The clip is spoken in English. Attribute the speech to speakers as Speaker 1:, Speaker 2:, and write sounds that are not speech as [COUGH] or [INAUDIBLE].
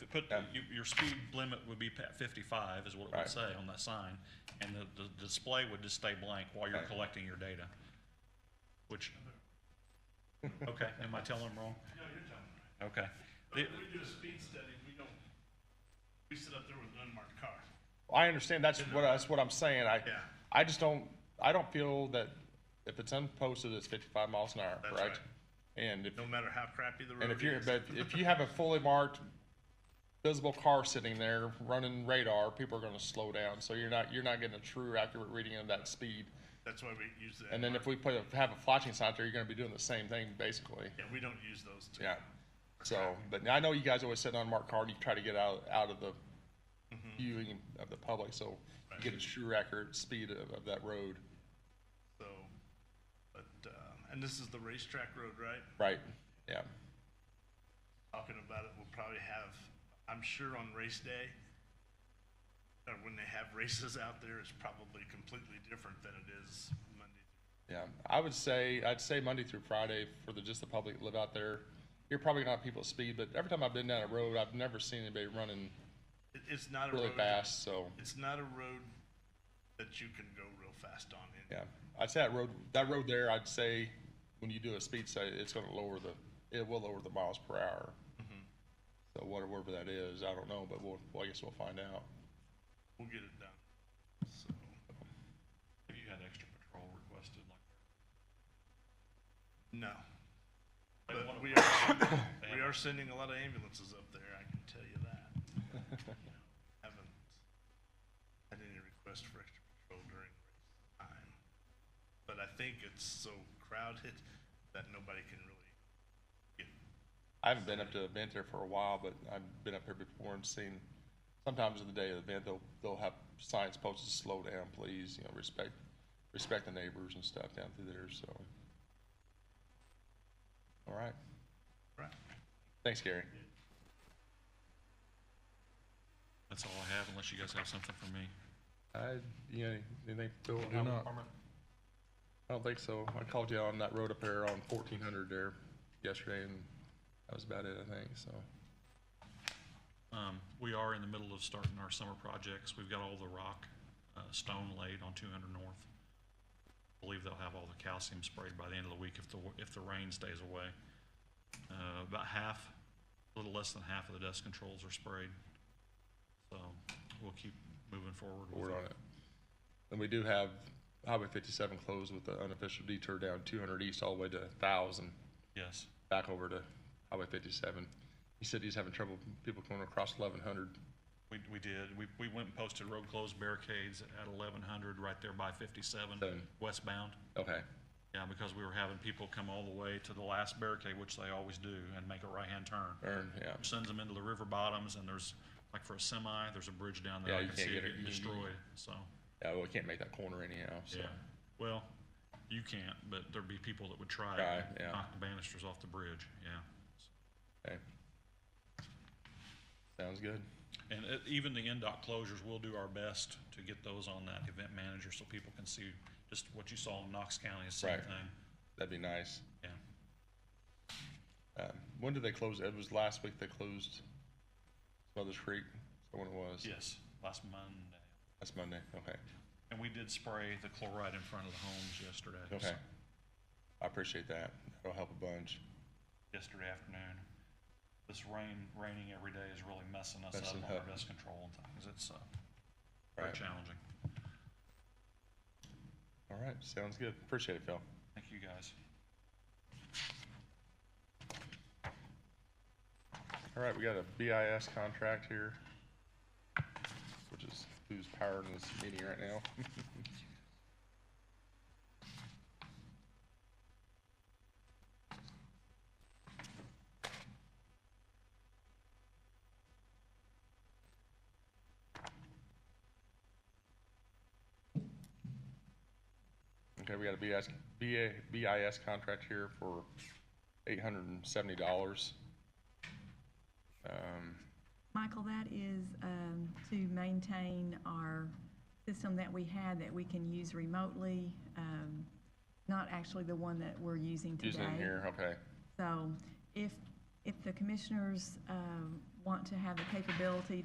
Speaker 1: put,
Speaker 2: Yeah.
Speaker 1: you- your speed limit would be pa- fifty-five is what it
Speaker 2: Right.
Speaker 1: would say on that sign. And the, the display would just stay blank while you're
Speaker 2: Right.
Speaker 1: collecting your data. Which, okay, am I telling them wrong?
Speaker 3: No, you're telling me.
Speaker 1: Okay.
Speaker 3: But
Speaker 1: The-
Speaker 3: when we do a speed study, we don't, we sit up there with an unmarked car.
Speaker 2: I understand, that's what, that's what I'm saying, I,
Speaker 3: Yeah.
Speaker 2: I just don't, I don't feel that if it's unposted, it's fifty-five miles an hour,
Speaker 3: That's
Speaker 2: right?
Speaker 3: right.
Speaker 2: And if,
Speaker 3: No matter how crappy the road
Speaker 2: and
Speaker 3: is.
Speaker 2: if you're,
Speaker 3: [LAUGHS]
Speaker 2: but if you have a fully marked visible car sitting there running radar, people are gonna slow down, so you're not, you're not getting a true accurate reading of that speed.
Speaker 3: That's why we use that.
Speaker 2: And then if we put, a- have a flashing sign out there, you're gonna be doing the same thing, basically.
Speaker 3: Yeah, we don't use those two.
Speaker 2: Yeah. So, but I know you guys always sit on Mark Card, you try to get out, out of the viewing of the public, so you get a true accurate speed of, of that road.
Speaker 3: So, but, um, and this is the racetrack road, right?
Speaker 2: Right, yeah,
Speaker 3: Talking about it, we'll probably have, I'm sure on race day, or when they have races out there, it's probably completely different than it is Monday.
Speaker 2: yeah. I would say, I'd say Monday through Friday for the, just the public that live out there. You're probably gonna have people speed, but every time I've been down a road, I've never seen anybody running
Speaker 3: It, it's not a road.
Speaker 2: really fast, so,
Speaker 3: It's not a road that you can go real fast on. in-
Speaker 2: yeah. I'd say that road, that road there, I'd say, when you do a speed study, it's gonna lower the, it will lower the miles per hour. So whatever that is, I don't know, but we'll, well, I guess we'll find out.
Speaker 3: We'll get it done. So,
Speaker 1: Have you had extra patrol requested like?
Speaker 3: no.
Speaker 1: they
Speaker 3: But
Speaker 1: wanna-
Speaker 3: we are,
Speaker 1: they
Speaker 3: we
Speaker 1: have-
Speaker 3: are sending a lot of ambulances up there, I can tell you that. Haven't had any requests for extra patrol during race time. But I think it's so crowded that nobody can really get,
Speaker 2: I haven't been up to the event there for a while, but I've been up here before and seen, sometimes in the day of the event, they'll, they'll have signs posted, slow down, please, you know, respect, respect the neighbors and stuff down through there, so. All right,
Speaker 3: right?
Speaker 2: thanks, Gary.
Speaker 1: That's all I have unless you guys have something for me.
Speaker 2: I, you know, anything, Phil?
Speaker 4: do
Speaker 2: I'm-
Speaker 4: not.
Speaker 2: I don't think so. I called you on that road up there on fourteen hundred there yesterday, and that was about it, I think, so.
Speaker 1: Um, we are in the middle of starting our summer projects. We've got all the rock, uh, stone laid on two hundred north. Believe they'll have all the calcium sprayed by the end of the week if the, if the rain stays away. Uh, about half, a little less than half of the dust controls are sprayed. So we'll keep moving forward. with
Speaker 2: Forward on it. And we do have Highway fifty-seven closed with the unofficial detour down two hundred east all the way to thousand.
Speaker 1: Yes,
Speaker 2: back over to Highway 57. He said he's having trouble with people going across 1100.
Speaker 1: we, we did. We, we went and posted road closed barricades at eleven hundred right there by fifty-seven
Speaker 2: Seven.
Speaker 1: westbound.
Speaker 2: Okay.
Speaker 1: Yeah, because we were having people come all the way to the last barricade, which they always do, and make a right-hand turn.
Speaker 2: Earn, yeah.
Speaker 1: which sends them into the river bottoms, and there's, like for a semi, there's a bridge down there,
Speaker 2: Yeah,
Speaker 1: I
Speaker 2: you
Speaker 1: can
Speaker 2: can't
Speaker 1: see it
Speaker 2: get it.
Speaker 1: getting destroyed, so,
Speaker 2: Yeah, well, we can't make that corner anyhow, so.
Speaker 1: yeah. Well, you can't, but there'd be people that would try
Speaker 2: Try,
Speaker 1: it,
Speaker 2: yeah.
Speaker 1: knock the banisters off the bridge, yeah.
Speaker 2: Okay. Sounds good.
Speaker 1: And it- even the NDOT closures, we'll do our best to get those on that event manager, so people can see just what you saw in Knox County, the same
Speaker 2: Right.
Speaker 1: thing,
Speaker 2: That'd be nice.
Speaker 1: yeah.
Speaker 2: Um, When did they close? It was last week they closed Mother's Creek. Is that when it was?
Speaker 1: Yes, last Monday.
Speaker 2: That's Monday, okay.
Speaker 1: And we did spray the chloride in front of the homes yesterday.
Speaker 2: Okay. I appreciate that. That'll help a bunch.
Speaker 1: yesterday afternoon. This rain, raining every day is really messing us up
Speaker 2: Messing
Speaker 1: on our
Speaker 2: up.
Speaker 1: dust control and things. It's, uh, very
Speaker 2: Right.
Speaker 1: challenging.
Speaker 2: All right, sounds good. Appreciate it, Phil.
Speaker 1: Thank you, guys.
Speaker 2: All right, we got a BIS contract here, which is who's powering this meeting right now. [LAUGHS] Okay, we got a BIS, BA, BIS contract here for eight hundred and seventy dollars. Um,
Speaker 5: Michael, that is um, to maintain our system that we had that we can use remotely, um, not actually the one that we're using today.
Speaker 2: using it here, okay.
Speaker 5: So if, if the commissioners um, want to have the capability